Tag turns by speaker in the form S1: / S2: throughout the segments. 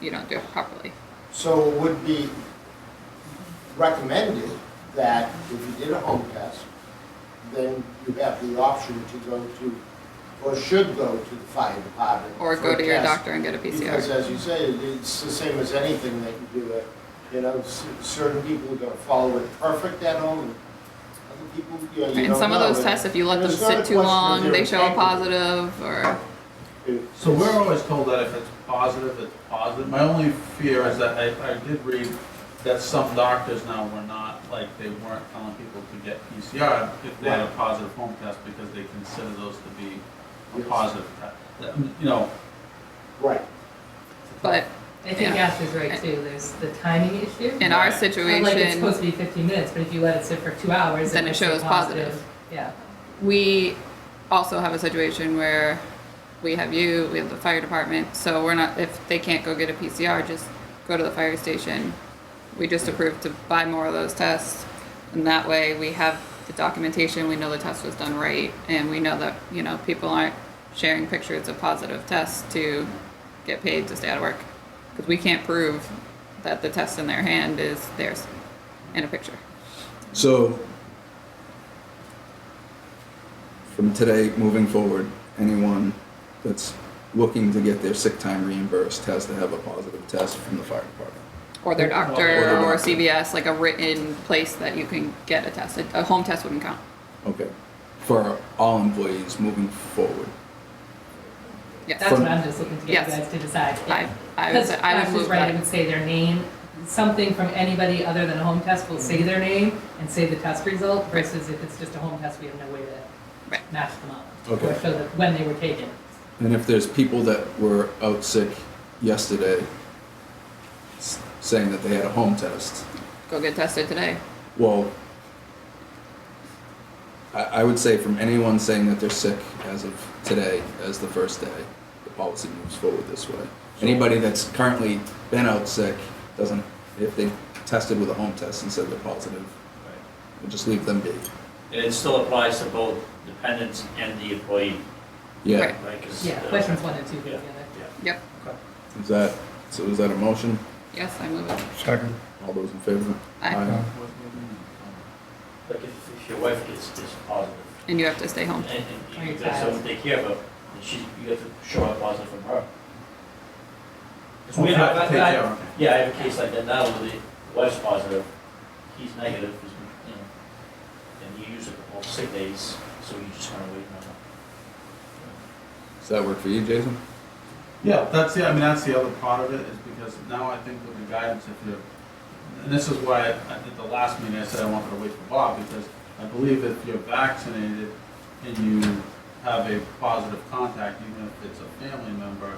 S1: you don't do it properly.
S2: So it would be recommended that if you did a home test, then you have the option to go to, or should go to the fire department.
S1: Or
S2: for a
S1: go to your
S2: test.
S1: doctor and get a
S2: Because
S1: PCR.
S2: as you say, it's the same as anything that you do, uh, you know, c- certain people are gonna follow it perfect at home, and other people, you know, you
S1: And
S2: don't
S1: some of
S2: know,
S1: those
S2: and
S1: tests, if you let them
S2: it's not a
S1: sit too
S2: question of
S1: long,
S2: their
S1: they show a
S2: integrity.
S1: positive or,
S2: it-
S3: So we're always told that if it's positive, it's positive. My only fear is that I, I did read that some doctors now were not, like, they weren't telling people to get PCR if they had a positive home test because they consider those to be a
S2: Yes.
S3: positive test. That, You know,
S2: Right.
S1: but
S4: I think
S1: Yeah.
S4: Ashley's right too, there's the timing issue.
S1: in our
S3: Right.
S4: Like it's
S1: situation,
S4: supposed to be fifteen minutes, but if you let it sit for two hours.
S1: Then it
S4: makes
S1: shows positive.
S4: Yeah,
S1: we also have a situation where we have you, we have the fire department, so we're not, if they can't go get a PCR, just go to the fire station. We just approved to buy more of those tests, and that way we have the documentation, we know the test was done right, and we know that, you know, people aren't sharing pictures of positive tests to get paid to stay out of work. Because we can't prove that the test in their hand is theirs in a picture.
S5: So, from today moving forward, anyone that's looking to get their sick time reimbursed has to have a positive test from the fire department.
S1: or their
S3: Or
S1: doctor
S5: their
S1: or
S5: doctor.
S1: CVS, like a written place that you can get a test. A a home test wouldn't count.
S5: Okay. For all employees moving forward.
S1: Yes,
S4: that's
S5: From-
S4: what I'm just looking to get you
S1: Yes.
S4: guys to decide.
S1: I, I would, say- I would move
S4: right, it
S1: that.
S4: would say their name, something from anybody other than a home test will say their name and say the test result versus if it's just a home test, we have no way to
S1: Right.
S4: match them up.
S5: Okay.
S4: Or show that when they were taken.
S5: And if there's people that were out sick yesterday s- saying that they had a home test,
S1: Go get tested today.
S5: well, I, I would say from anyone saying that they're sick as of today, as the first day, the policy moves forward this way. Anybody that's currently been out sick doesn't, if they tested with a home test and said they're positive,
S6: Right.
S5: we'll just leave them be.
S6: And it still applies to both dependents and the employee,
S5: Yeah.
S1: Right.
S6: right? 'Cause,
S4: Yeah,
S6: uh,
S4: questions one and two go
S6: Yeah.
S4: together.
S1: Yep.
S5: Is that, so is that a motion?
S1: Yes, I move it.
S7: Second.
S5: All those in favor?
S1: Aye.
S6: Like if, if your wife gets is positive,
S1: And you have to stay home.
S6: and, and
S4: Or
S6: you
S4: your
S6: got
S4: child.
S6: someone to take care of, her, and she, you have to show a positive from her. 'Cause
S3: we
S6: we-
S3: have to
S6: I-
S3: take
S6: I-
S3: care of it.
S6: Yeah, I have a case like that now, where the wife's positive, he's negative, he's been, you know, and you use it all sick days, so you just kinda wait uh, on her.
S5: Does that work for you, Jason?
S3: Yeah, that's the, I mean, that's the other part of it, is because now I think with the guidance, if you're, and this is why I- at the last meeting, I said I wanted to wait for Bob, because I believe if you're vaccinated and you have a positive contact, even if it's a family member,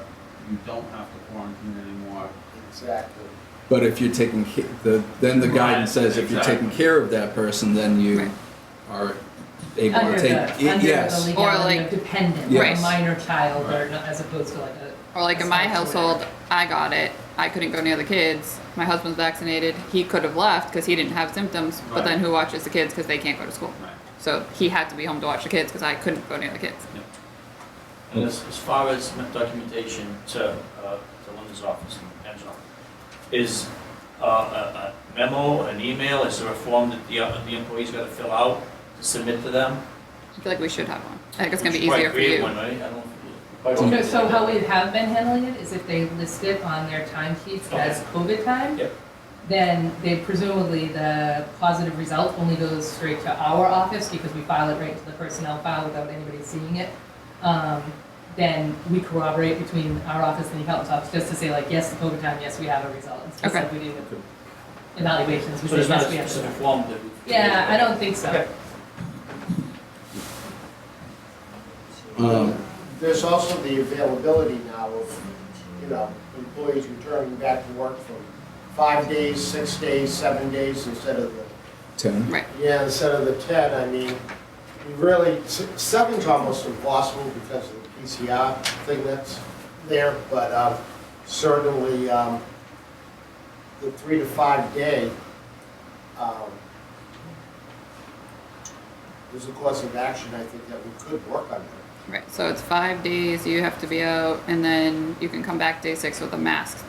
S3: you don't have to quarantine anymore.
S2: Exactly.
S5: But if you're taking ca- the then the guidance
S3: Right,
S5: says if you're taking care of that person, then you
S1: Right.
S5: are able
S4: Under
S5: to take
S4: the, under the
S5: yes.
S4: legality
S1: Or
S4: of dependent,
S5: Yes.
S4: or a minor child, or
S3: Right.
S4: not- as opposed to like a.
S1: Or like in my
S4: spouse or
S1: household,
S4: whatever.
S1: I got it. I couldn't go near the kids. My husband's vaccinated. He could have left because he didn't have symptoms, but
S3: Right.
S1: then who watches the kids because they can't go to school?
S3: Right.
S1: So he had to be home to watch the kids because I couldn't go near the kids.
S6: And as, as far as my documentation to, uh, to Linda's office and Angela, is, uh, a, a memo, an email, is there a form that the, uh, the employee's gotta fill out to submit to them?
S1: I feel like we should have one. I think it's gonna be
S6: Which
S1: easier for you.
S6: Quite create one, right? I don't. quite
S4: So-
S6: often.
S4: So how we have been handling it is if they list it on their time sheets as COVID time,
S6: Yep.
S4: then they presumably, the positive result only goes straight to our office because we file it right to the personnel file without anybody seeing it. Um, Then we corroborate between our office and the health office, just to say like, yes, the COVID time, yes, we have a result. It's just
S1: Okay.
S4: like we do with evaluations, we
S6: So
S4: say,
S6: there's not
S4: yes,
S6: a
S4: we have.
S6: specific
S4: a-"
S6: form that we.
S4: Yeah, I don't think so.
S6: Okay.
S5: Um,
S2: There's also the availability now of, you know, employees returning back to work from five days, six days, seven days instead of the,
S5: ten.
S1: Right.
S2: yeah, instead of the 10. I mean, you really, s- seven's almost impossible because of the PCR thing that's there, but um, certainly um, the three to five day, um, there's a course of action I think that we could work on
S1: Right, so it's five days you have to be out, and then you can come back day six with a mask